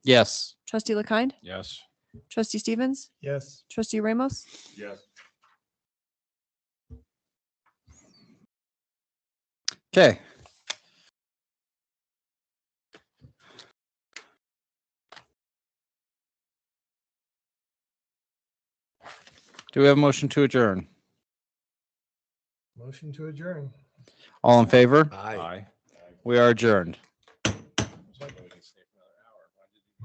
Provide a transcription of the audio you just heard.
Yes. Trustee LaKind, Yes. Trustee Stevens, Yes. Trustee Ramos, Yes. Okay. Do we have a motion to adjourn? Motion to adjourn. All in favor? Aye. We are adjourned.